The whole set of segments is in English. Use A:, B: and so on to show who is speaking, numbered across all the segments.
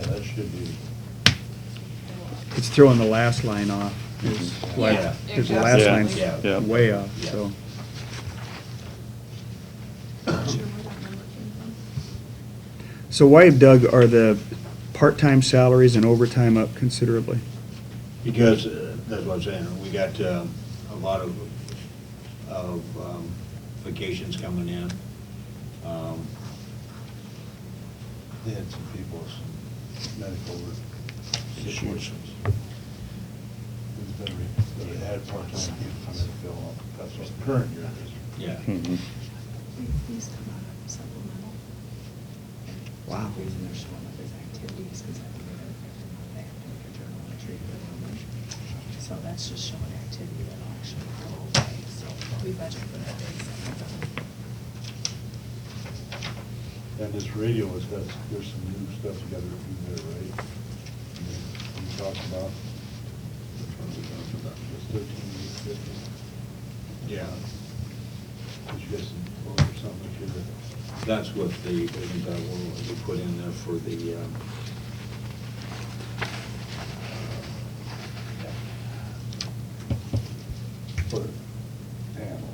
A: that should be.
B: It's throwing the last line off. It's-
A: Like-
C: Yeah.
B: There's the last
A: Yeah.
B: line's
C: Yeah.
A: Yeah.
B: way off, so. So why, Doug, are the part-time salaries and overtime up considerably?
A: Because, uh, that's what I'm saying, we got um, a lot of, of um, vacations coming in. Um, They had some people, some medical issues.
D: It's been, re- they had part-time people come in and fill up, that's what the current year is.
A: Yeah.
D: Mm-hmm.
E: These come out of supplemental.
B: Wow.
E: Reason they're showing up as activities is that they're not active for journal entry for language. So that's just showing activity that will actually go away, so we budget for that day.
D: And this radio has got, there's some new stuff together in there, right? I mean, We talked about, which one we talked about, just thirteen, fifty?
A: Yeah.
D: Did you get some, quote or something here?
A: That's what the, isn't that what we put in there for the, um,
D: For panel.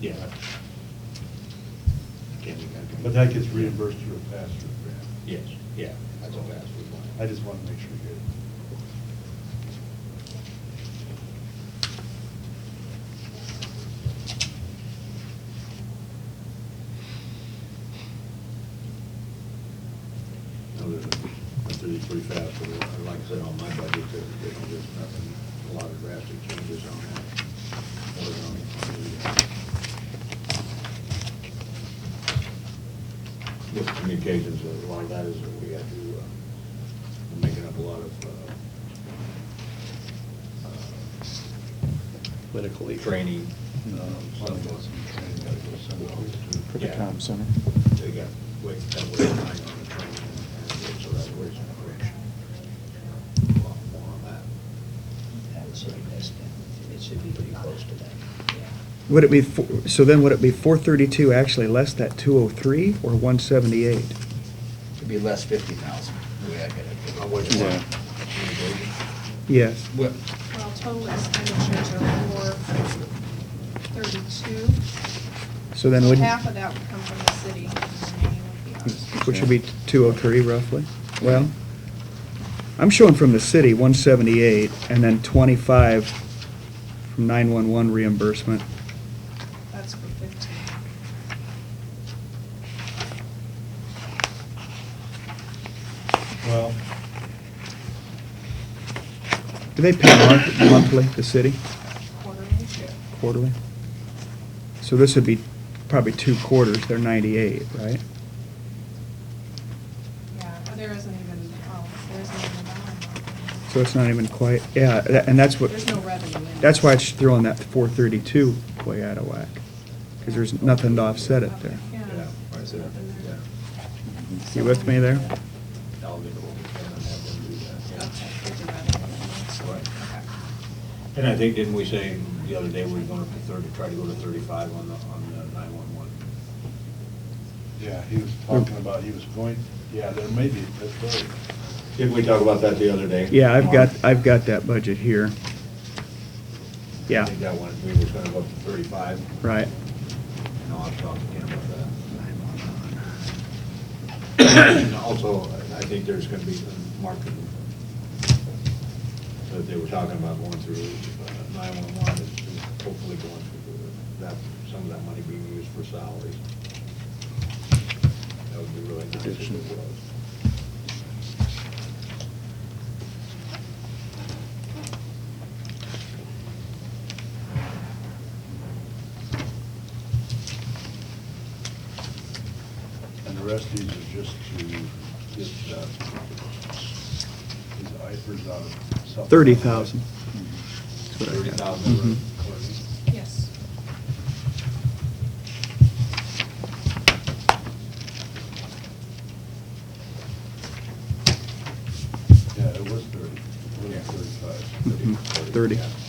A: yeah. Again, we gotta-
D: But that gets reimbursed through a pass-through grant.
A: Yes, yeah, that's a fast one.
D: I just want to make sure you get it.
A: No, they're, they're really pretty fast, but uh, like I said, on my budget, there- there's, there's nothing, a lot of drastic changes on that. Or on the, uh, With uh, communications, a lot of that is that we have to, uh, we're making up a lot of, uh, uh,
B: Politically.
A: training, um,
D: One
A: some
D: of
A: of
D: those,
A: those,
D: you kind of gotta go somewhere else to-
B: For the
A: Yeah.
B: comm center.
A: they got, wait, that way behind on the training, and so that's where it's in correction. A lot more on that.
E: That's right, that's, it should be pretty close to that, yeah.
B: Would it be, four- so then would it be four thirty-two actually less that two oh three or one seventy-eight?
C: It'd be less fifty thousand, the way I get it.
A: I wish-
F: Yeah.
B: Yes.
C: Well,
G: Well, total expenditures are four thirty-two.
B: So then would,
G: Half of that would come from the city, and the remaining would be ours.
B: which would be two oh three roughly? Well, I'm showing from the city, one seventy-eight, and then twenty-five from nine-one-one reimbursement.
G: That's for fifteen.
D: Well,
B: Do they pay mon- monthly, the city,
G: quarterly.
B: quarterly? So this would be probably two quarters, they're ninety-eight, right?
G: Yeah, but there isn't even, oh, there isn't even a dollar.
B: So it's not even quite, yeah, tha- and that's what.
G: There's no revenue in it.
B: That's why it's throwing that four thirty-two way out of whack, because there's nothing to offset it there.
G: Yeah.
A: Yeah, right there, yeah.
B: You with me there?
A: I'll get over there and have them do that,
G: Okay,
A: yeah.
G: there's a revenue.
A: Right.
G: Okay.
A: And I think, didn't we say the other day we were going to thirty, try to go to thirty-five on the, on the nine-one-one?
D: yeah, he was talking about, he was going, yeah, there may be, that's right.
A: Didn't we talk about that the other day?
B: Yeah, I've got, I've got that budget here.
A: I
B: Yeah,
A: think that one, we was going to go up to thirty-five,
B: right.
A: and I'll have to talk to him about that. And also, I think there's going to be some marketing that they were talking about going through nine-one-one, is hopefully going through that, some of that money being used for salaries. That would be really nice if it was.
D: And the rest of these are just to get, uh, these IFRS out of. something.
B: Thirty thousand.
A: Thirty
B: Mhm.
A: thousand.
G: Yes.
D: Yeah, it was thirty, it was thirty-five.
B: Mhm, Thirty.
A: Yeah.